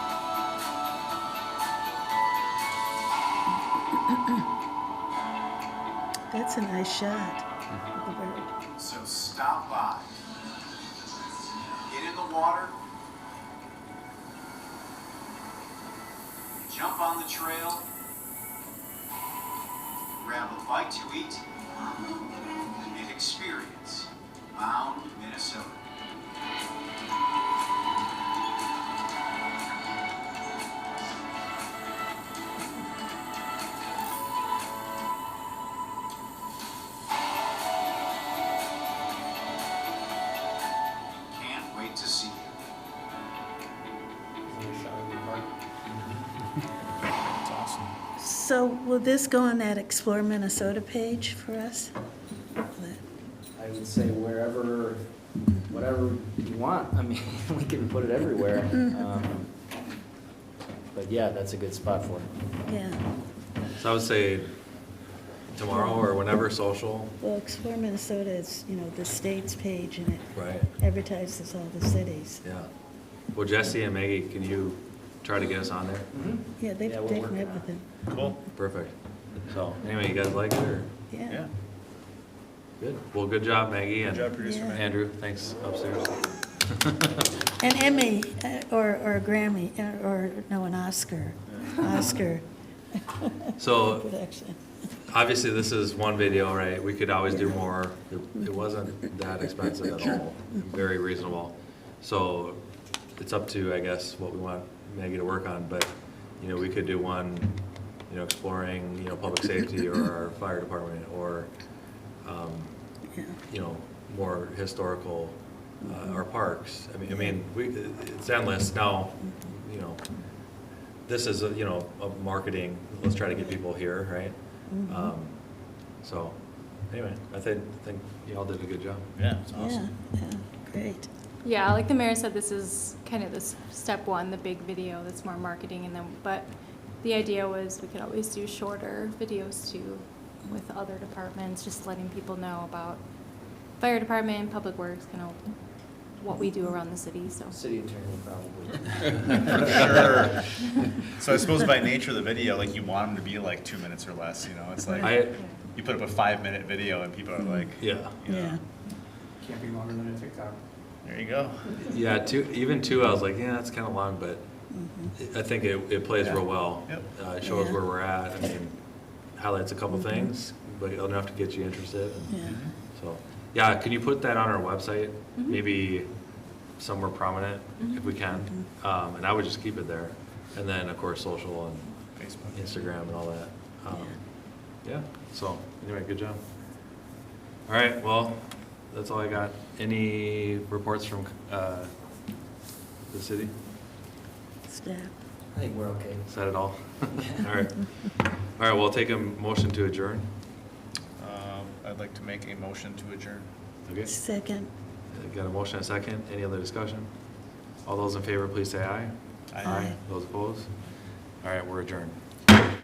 That's a nice shot of the bird. So stop by. Get in the water. Jump on the trail. Grab a bite to eat and experience Mound, Minnesota. Can't wait to see you. That's awesome. So will this go on that Explore Minnesota page for us? I would say wherever, whatever you want. I mean, we can put it everywhere. Um, But yeah, that's a good spot for it. Yeah, So I would say tomorrow or whenever social, well, Explore Minnesota is, you know, the state's page and it right? advertises all the cities. Yeah. Well, Jesse and Maggie, can you try to get us on there? Yeah, they've, Yeah, we're they've working met on with it. them, Cool. Perfect. So anyway, you guys like it or? yeah. Yeah. Good. Well, good job, Maggie Good job, and producer Yeah. man. Andrew. Thanks upstairs. An Emmy, uh, or, or a Grammy, uh, or, no, an Oscar, Oscar So production. obviously this is one video, right? We could always do more. It it wasn't that expensive at all, very reasonable. So it's up to, I guess, what we want Maggie to work on, but, you know, we could do one, you know, exploring, you know, public safety or our fire department or, um, Yeah. you know, more historical, uh, our parks. I mean, I mean, we, it's endless now, you know, this is, a, you know, a marketing, let's try to get people here, right? Um, So, anyway, I think, I think y'all did a good job. Yeah, it's Yeah, awesome. yeah, great. Yeah, like the mayor said, this is kind of this step one, the big video that's more marketing and then, but the idea was we could always do shorter videos too with other departments, just letting people know about fire department, public works, kind of what we do around the city, so. City attorney probably. For sure. So I suppose by nature of the video, like you want them to be like two minutes or less, you know, it's like, I, you put up a five minute video and people are like, yeah, you know, Yeah. Can't be longer than a TikTok. there you go. yeah, two, even two, I was like, yeah, that's kind of long, but Mm-hmm. I think it, it plays real well. Yep. Uh, It shows Yeah. where we're at, I mean, highlights a couple things, but enough to get you interested. and- Yeah, So, yeah, can you put that on our website? Maybe somewhere prominent, if we can. Um, and I would just keep it there. And then, of course, social and Facebook. Instagram and all that. Um, yeah, so, anyway, good job. All right, well, that's all I got. Any reports from, uh, the city? staff. I think we're okay. Is that it all? All right. All right, well, take a motion to adjourn. Um, I'd like to make a motion to adjourn. Okay. Second, Got a motion, and a second. Any other discussion? All those in favor, please say aye. Aye. Aye. Those opposed? All right, we're adjourned.